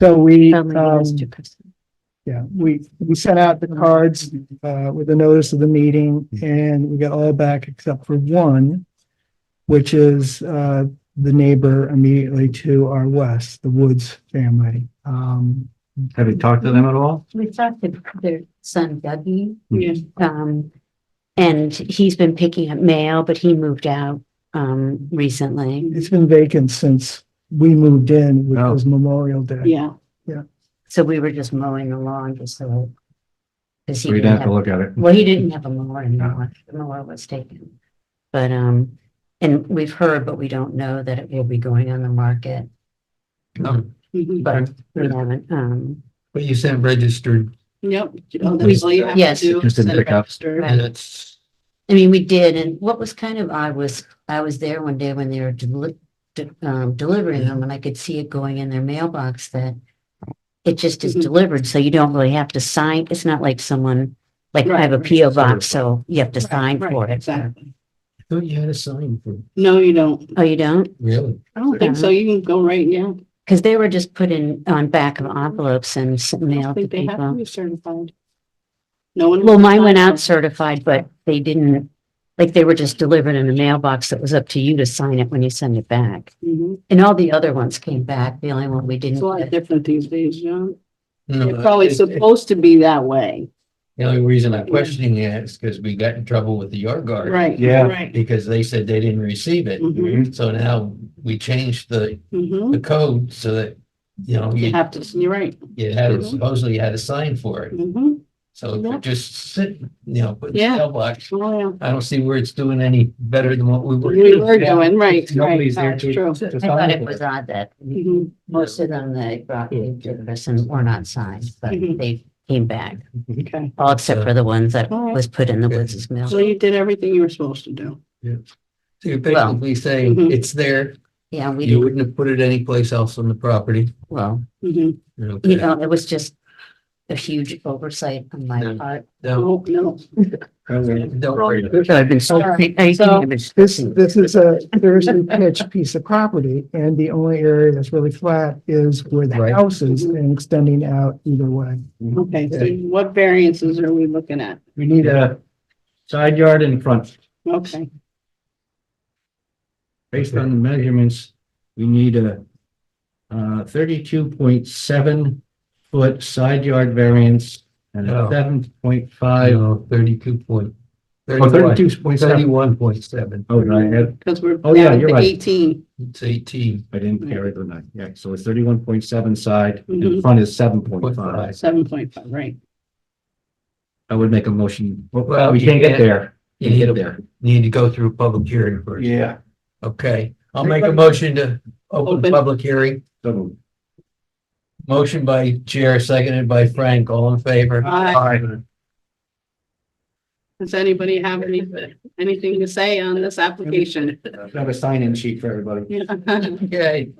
So we, um, Well, yeah, we, we sent out the cards, uh, with the notice of the meeting and we got all back except for one, which is, uh, the neighbor immediately to our west, the Woods family. Um, Have you talked to them at all? We talked to their son Dougie. Yeah. Um, and he's been picking up mail, but he moved out, um, recently. it's been vacant since we moved in, which was Memorial Day. Yeah, So we were just mowing the lawn just so. Cause he We'd didn't have to have, look at it. well, he didn't have a mower anymore. The mower was taken. But, um, and we've heard, but we don't know that it will be going on the market. No. But we haven't, um, Oh, But you sent registered yep. Oh, that's all you have to Yes. do, Just didn't send it pick up. registered. Right. and it's, I mean, we did, and what was kind of odd was, I was there one day when they were deli- de- um, delivering them, and I could see it going in their mailbox that it just is Mhm. delivered, so you don't really have to sign, it's not like someone, like I have a Right, right. PO box, so you have to Right, sign right, for it. Exactly. I thought you had a sign for, No, you don't. Oh, you don't? really? I don't think so. You can go right now. Because they were just put in on back of envelopes and s- I don't mailed to think they have to people. be certified. No one. Well, mine went out certified, but they didn't, like, they were just delivered in a mailbox that was up to you to sign it when you send it back. Mhm. And all the other ones came back. The only one we didn't. It's a lot get- different these days, John. Uh, No, They're probably it's- it's- supposed to be that way. The only reason I'm questioning it is because we got in trouble with the yard guard. Right. Yeah. Right. Because they said they didn't receive it. Mhm, So now we changed the, mhm. the code so that, you know, You you, have to, you're right. you had, Mhm. supposedly you had a sign for it. Mhm. So if Yeah. you're just sitting, you know, putting Yeah. mailbox, Oh, yeah. I don't see where it's doing any better than what we were. We were Yeah. doing, right, right. Nobody's there That's to- true. to I thought sign it for was odd that Mhm. most of them they brought in to us and were not signed, but Mhm. they came back. Okay. All except for the ones that All right. was put in the Woods' mail. So you did everything you were supposed to do. So you're Well- basically saying mm-hmm. Mhm. it's there, Yeah, we you didn't, wouldn't have put it anyplace else on the property. well, Mhm. Okay. you know, it was just a huge oversight on my No. part. No, Oh, no. don't worry. about it. I've been so- This, this is a seriously pitched piece of property and the only area that's really flat is where the Right. house is and extending out either way. Okay, so what variances are we looking at? We need a side yard and front. Okay, Based on the measurements, we need a uh, thirty-two point seven foot side yard variance and Oh. a seven point I five. know, thirty-two point. Oh, thirty-two point seven. Thirty-one point seven, Oh, did I add? because we're Oh, yeah, down you're to right. eighteen. it's eighteen I didn't carry the nine. Yeah, so it's thirty-one point seven side and Mm-hmm. Mhm. front is seven point point five. five. Seven point five, right. I would make a motion. Well, We you can't get can't- there. You Can't get need to, there. need to go through a public hearing first. Yeah. Okay, I'll make a motion to open the Open. public hearing. So Motion by Chair, seconded by Frank, all in favor? Aye. Does anybody have any, anything to say on this application? have a sign-in sheet for everybody. Okay,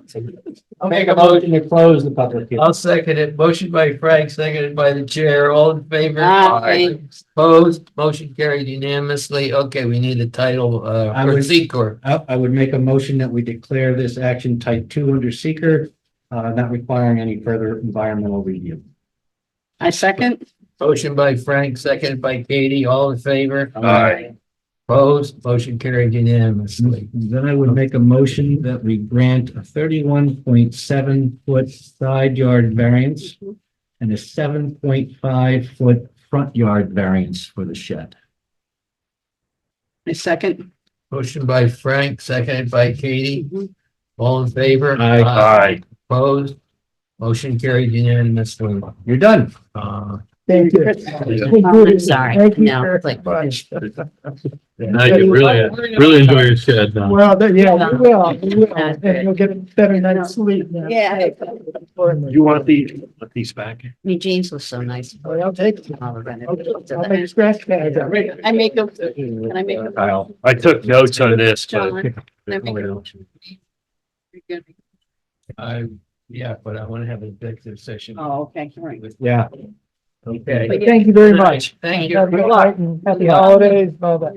I'll make a motion to close the public hearing. I'll second it. Motion by Frank, seconded by the chair, all in favor? Aye. Opposed, motion carried unanimously. Okay, we need a title, uh, I for would- Secor. I, I would make a motion that we declare this action type two under seeker, uh, not requiring any further environmental review. I second. Motion by Frank, seconded by Katie, all in favor? Aye. Opposed, motion carried unanimously. Then I would make a motion that we grant a thirty-one point seven foot side yard variance and a seven point five foot front yard variance for the shed. I second. Motion by Frank, seconded by Katie, all in favor? Mm-hmm. Aye. Opposed, motion carried unanimously. You're done. Uh, Thank you. I'm sorry, Thank you no, very like, much. Now you really, really enjoy your shed uh, now. Well, there- yeah, we will, we will, Yeah. and you'll get a better night's sleep now. Yeah. You want the? I mean, James was so nice. Oh, Well, I'll take it. All around it. I'll make scratch pads. out of it. I make a, can I make a? Kyle, I took notes on this, but. John, can I make a motion? You're good. I, yeah, but I want to have an executive session. Oh, okay, all right. Yeah. Okay. Thank you very much. Thank Have a you. good night and Happy holidays, all that.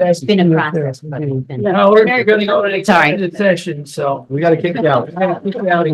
It's been a process, but it's been. Now, we're gonna go to an Sorry. executive session, so. We gotta kick it out. Out